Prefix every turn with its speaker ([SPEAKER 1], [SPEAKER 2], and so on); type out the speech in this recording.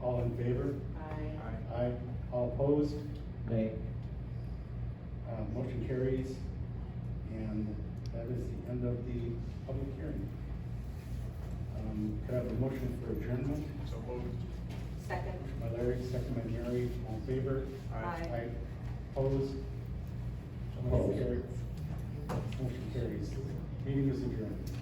[SPEAKER 1] Um, favor?
[SPEAKER 2] Aye.
[SPEAKER 1] Aye. All opposed?
[SPEAKER 3] Nay.
[SPEAKER 1] Uh, motion carries. And that is the end of the public hearing. Um, could I have a motion for adjournment?
[SPEAKER 4] So moved.
[SPEAKER 2] Second.
[SPEAKER 1] Motion by Larry, second by Mary, all in favor?
[SPEAKER 2] Aye.
[SPEAKER 1] Aye. Opposed? Motion
[SPEAKER 3] Opposed.
[SPEAKER 1] carries. Motion carries. Meeting is adjourned.